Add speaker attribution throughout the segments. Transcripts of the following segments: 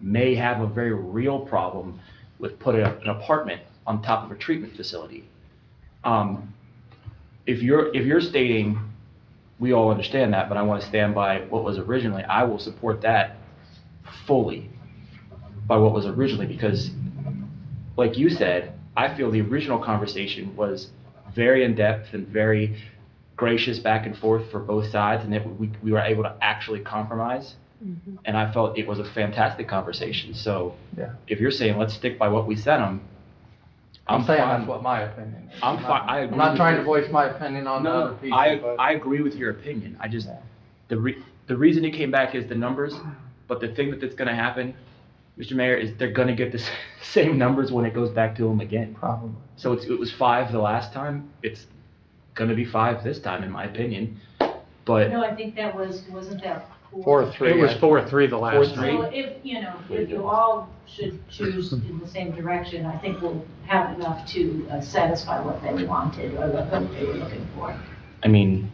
Speaker 1: may have a very real problem with putting up an apartment on top of a treatment facility. Um, If you're, if you're stating, we all understand that, but I want to stand by what was originally, I will support that fully by what was originally, because like you said, I feel the original conversation was very in-depth and very gracious back and forth for both sides, and that we, we were able to actually compromise. And I felt it was a fantastic conversation, so
Speaker 2: Yeah.
Speaker 1: if you're saying, let's stick by what we sent them,
Speaker 2: I'm
Speaker 1: I'm
Speaker 2: saying that's
Speaker 1: fine.
Speaker 2: what my opinion is.
Speaker 1: I'm fi- I
Speaker 2: I'm
Speaker 1: agree
Speaker 2: not
Speaker 1: with
Speaker 2: trying
Speaker 1: you.
Speaker 2: to voice my opinion on the other
Speaker 1: No,
Speaker 2: people,
Speaker 1: I,
Speaker 2: but.
Speaker 1: I agree with your opinion, I just,
Speaker 2: Yeah.
Speaker 1: the re, the reason it came back is the numbers, but the thing that that's gonna happen, Mr. Mayor, is they're gonna get the s- same numbers when it goes back to them again.
Speaker 2: Probably.
Speaker 1: So it's, it was five the last time. It's gonna be five this time, in my opinion. But
Speaker 3: No, I think that was, wasn't that four?
Speaker 2: Four, three.
Speaker 4: It was
Speaker 2: I-
Speaker 4: four, three the last
Speaker 1: three.
Speaker 4: time.
Speaker 3: So if, you know, if you all should choose in the same direction, I think we'll have enough to uh, satisfy what they wanted or what they were looking for.
Speaker 1: I mean,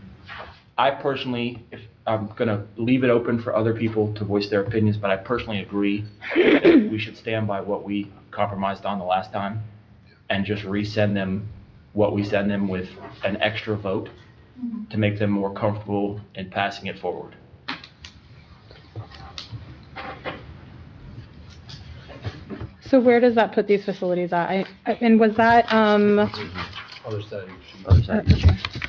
Speaker 1: I personally, if I'm gonna leave it open for other people to voice their opinions, but I personally agree that we should stand by what we compromised on the last time and just resend them what we send them with an extra vote
Speaker 5: Mm-hmm.
Speaker 1: to make them more comfortable in passing it forward.
Speaker 5: So where does that put these facilities at? I- And was that, um, uh,
Speaker 4: Other side of your sheet.
Speaker 1: Other side.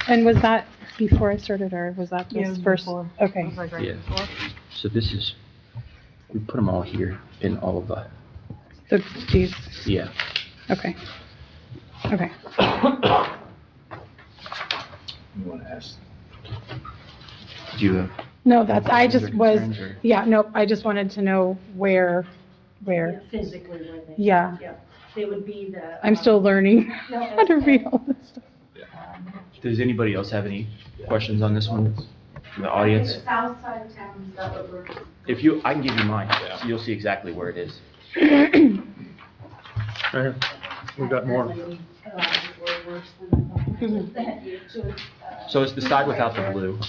Speaker 5: and was that before I started or was that
Speaker 6: Yeah, it
Speaker 5: this
Speaker 6: was
Speaker 5: first?
Speaker 6: before.
Speaker 5: Okay.
Speaker 6: Looks like right
Speaker 1: Yeah.
Speaker 6: before.
Speaker 1: So this is, we put them all here in all of the,
Speaker 5: So these,
Speaker 1: yeah.
Speaker 5: okay. Okay.
Speaker 4: You wanna ask?
Speaker 1: Do you have?
Speaker 5: No, that's, I just
Speaker 1: Concerns
Speaker 5: was,
Speaker 1: or-
Speaker 5: yeah, no, I just wanted to know where, where.
Speaker 3: Physically, where they.
Speaker 5: Yeah.
Speaker 3: They would be the. um,
Speaker 5: I'm still learning how to read all this stuff.
Speaker 1: Does anybody else have any questions on this one? From the audience?
Speaker 7: South side of town, is that what we're?
Speaker 1: If you, I can give you mine. You'll see exactly where it is.
Speaker 4: We got more.
Speaker 3: uh,
Speaker 1: So it's the side without the blue.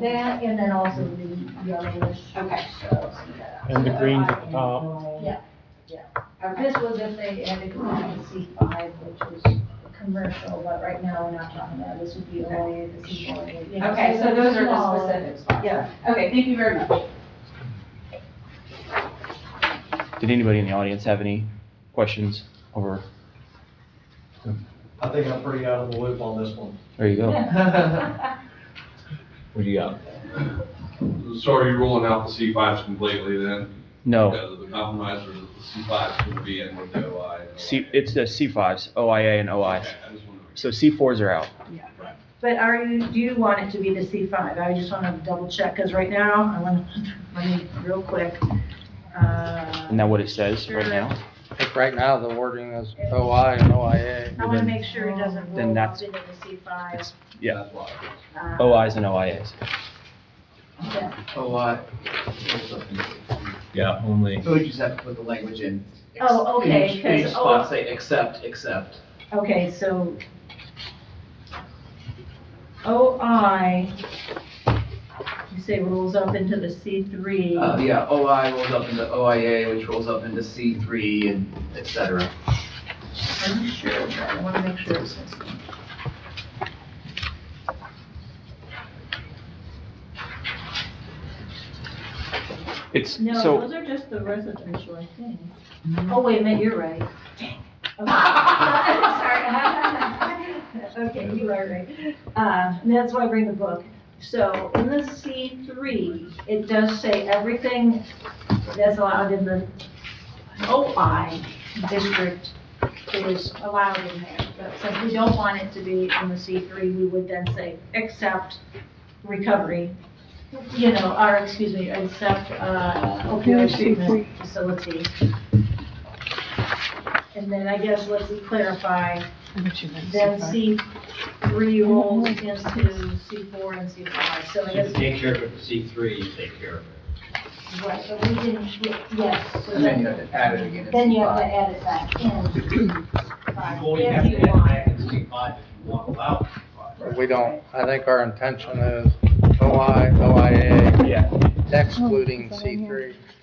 Speaker 3: That, and then also the yellowish.
Speaker 7: Okay.
Speaker 3: So,
Speaker 4: And the greens at the
Speaker 3: top. Yeah, yeah. Uh, This was if they added the C five, which is commercial, but right now we're not talking about, this would be only the C four.
Speaker 7: Okay, so those are the specifics.
Speaker 3: Yeah.
Speaker 7: Okay, thank you very much.
Speaker 1: Did anybody in the audience have any questions over,
Speaker 8: I think I'm pretty out of the loop on this one.
Speaker 1: there you go.
Speaker 4: What do you got?
Speaker 9: So are you ruling out the C fives completely then?
Speaker 1: No,
Speaker 9: Because of the compromise or the C fives going to be in with the OI?
Speaker 1: C, it's the C5s, OIA and OIs.
Speaker 9: Okay, I just wanted to-
Speaker 1: So C4s are out.
Speaker 3: But are you, do you want it to be the C five? I just want to double check, because right now, I want to, let me, real quick. Uh,
Speaker 1: Isn't that what it says right now?
Speaker 2: Like right now, the wording is OI and OIA.
Speaker 3: I want to make sure it doesn't
Speaker 1: Then
Speaker 3: roll up
Speaker 1: that's-
Speaker 3: into the C five. Uh,
Speaker 1: It's- Yeah,
Speaker 9: That's why.
Speaker 1: OIs and OIAs.
Speaker 2: OI.
Speaker 4: Yeah, only.
Speaker 10: We just have to put the language in.
Speaker 3: Oh, okay,
Speaker 10: Each, each
Speaker 3: because-
Speaker 10: spot say except, except.
Speaker 3: Okay, so OI, you say rolls up into the
Speaker 10: Uh,
Speaker 3: C3.
Speaker 10: yeah, OI rolls up into OIA, which rolls up into C three and et cetera.
Speaker 3: I'm not sure, but I want to make sure it says.
Speaker 1: It's,
Speaker 3: No,
Speaker 1: so,
Speaker 3: those are just the residential, I think. Oh, wait a minute, you're right. Okay. Sorry. Okay, you are right. Uh, That's why I bring the book. So in the C3, it does say everything that's allowed in the OI district is allowed in there. But since we don't want it to be in the C3, we would then say, except recovery, you know, or, excuse me, except uh, opioid treatment facility. And then I guess let's clarify, then C3 rolls into C4 and C5, so I guess.
Speaker 8: take care of it, C three, you take care of it.
Speaker 3: Right, but we didn't, yes. so
Speaker 10: And then you have to add it again in
Speaker 3: Then
Speaker 10: C
Speaker 3: you have to
Speaker 10: five.
Speaker 3: add it back in.
Speaker 8: You
Speaker 3: Five,
Speaker 8: only
Speaker 3: if
Speaker 8: have
Speaker 3: you
Speaker 8: to add
Speaker 3: want.
Speaker 8: back in C five if you want allowed C five.
Speaker 2: We don't, I think our intention is OI, OIA,
Speaker 1: yeah,
Speaker 2: excluding C three.